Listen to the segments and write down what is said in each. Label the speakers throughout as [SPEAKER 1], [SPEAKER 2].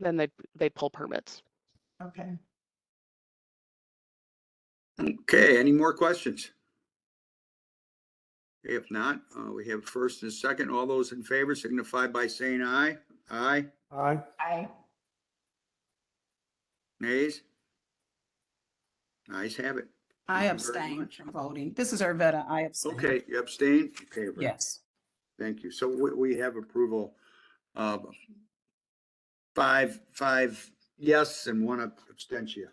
[SPEAKER 1] then they they pull permits.
[SPEAKER 2] Okay.
[SPEAKER 3] Okay, any more questions? If not, uh, we have first and second. All those in favor signify by saying aye. Aye,
[SPEAKER 4] Aye.
[SPEAKER 2] I,
[SPEAKER 3] nays? Ayes have it. Thank you
[SPEAKER 5] I
[SPEAKER 3] very
[SPEAKER 5] abstain
[SPEAKER 3] much.
[SPEAKER 5] from voting. This is Arvada. I abstain.
[SPEAKER 3] Okay, you abstain? Okay, Brad,
[SPEAKER 5] Yes.
[SPEAKER 3] Thank you. So we, we have approval of five, five yes and one abstention.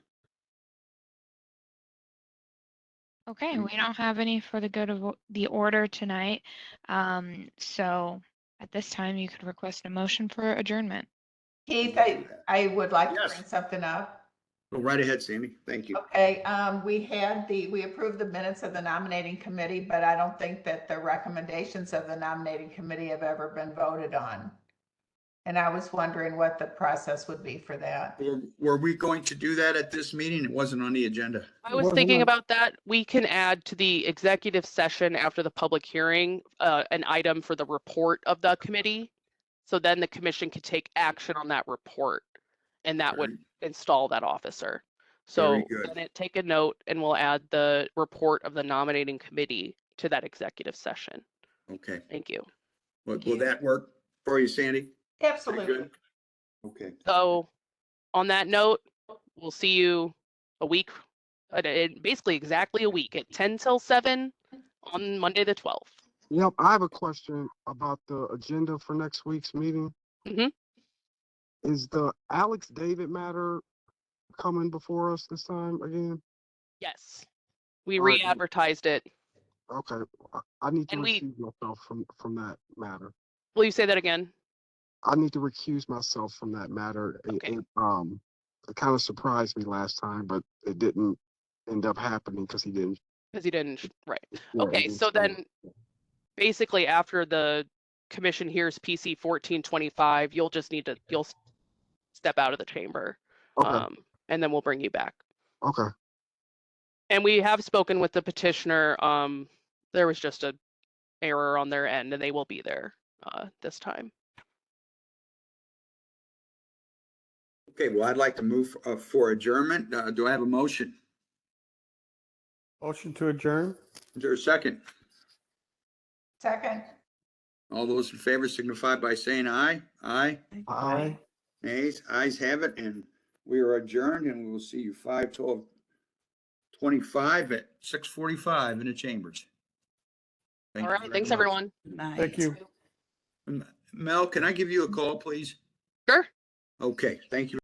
[SPEAKER 6] Okay,
[SPEAKER 3] Mm.
[SPEAKER 6] we don't have any for the good of o- the order tonight. Um, so at this time, you could request a motion for adjournment.
[SPEAKER 2] Keith, I, I would like to
[SPEAKER 3] Yes.
[SPEAKER 2] bring something up.
[SPEAKER 3] Go right ahead, Sammy. Thank you.
[SPEAKER 2] Okay, um, we had the, we approved the minutes of the nominating committee, but I don't think that the recommendations of the nominating committee have ever been voted on. And I was wondering what the process would be for that.
[SPEAKER 3] Were- Were we going to do that at this meeting? It wasn't on the agenda.
[SPEAKER 1] I was
[SPEAKER 4] Well,
[SPEAKER 1] thinking
[SPEAKER 4] hold on.
[SPEAKER 1] about that. We can add to the executive session after the public hearing, uh, an item for the report of the committee. So then the commission could take action on that report and that would install that officer. So
[SPEAKER 3] Very good.
[SPEAKER 1] then it- take a note and we'll add the report of the nominating committee to that executive session.
[SPEAKER 3] Okay.
[SPEAKER 1] Thank you.
[SPEAKER 3] Will,
[SPEAKER 2] Thank
[SPEAKER 3] will
[SPEAKER 2] you.
[SPEAKER 3] that work for you, Sandy? That
[SPEAKER 2] Absolutely.
[SPEAKER 3] good? Okay.
[SPEAKER 1] So on that note, we'll see you a week, uh, in basically exactly a week at 10 till 7 on Monday, the 12th.
[SPEAKER 4] Yep, I have a question about the agenda for next week's meeting.
[SPEAKER 1] Mhm.
[SPEAKER 4] Is the Alex David matter coming before us this time again?
[SPEAKER 1] Yes. We
[SPEAKER 4] Alright, cool.
[SPEAKER 1] re-advertised it.
[SPEAKER 4] Okay, I- I need to
[SPEAKER 1] And we-
[SPEAKER 4] recuse myself from, from that matter.
[SPEAKER 1] Will you say that again?
[SPEAKER 4] I need to recuse myself from that matter. It-
[SPEAKER 1] Okay.
[SPEAKER 4] It, um, it kind of surprised me last time, but it didn't end up happening because he didn't.
[SPEAKER 1] Because you didn't, sh- right.
[SPEAKER 4] yeah, it
[SPEAKER 1] Okay,
[SPEAKER 4] didn't
[SPEAKER 1] so
[SPEAKER 4] show up.
[SPEAKER 1] then basically after the commission hears PC 1425, you'll just need to, you'll s- step out of the chamber.
[SPEAKER 4] Okay,
[SPEAKER 1] um, And then we'll bring you back.
[SPEAKER 4] okay.
[SPEAKER 1] And we have spoken with the petitioner. um, There was just a error on their end and they will be there uh, this time.
[SPEAKER 3] Okay, well, I'd like to move uh, for adjournment. Uh, Do I have a motion?
[SPEAKER 4] Motion to adjourn?
[SPEAKER 3] Is there a second?
[SPEAKER 2] Second,
[SPEAKER 3] All those in favor signify by saying aye. Aye.
[SPEAKER 4] Aye.
[SPEAKER 3] Nays, ayes have it, and we are adjourned, and we will see you five twelve twenty-five at six forty-five in the chambers. Thank
[SPEAKER 1] All
[SPEAKER 3] you
[SPEAKER 1] right,
[SPEAKER 3] very
[SPEAKER 1] thanks,
[SPEAKER 3] much.
[SPEAKER 1] everyone.
[SPEAKER 5] Thank
[SPEAKER 4] you.
[SPEAKER 3] M- Mel, can I give you a call, please?
[SPEAKER 1] Sure.
[SPEAKER 3] Okay, thank you.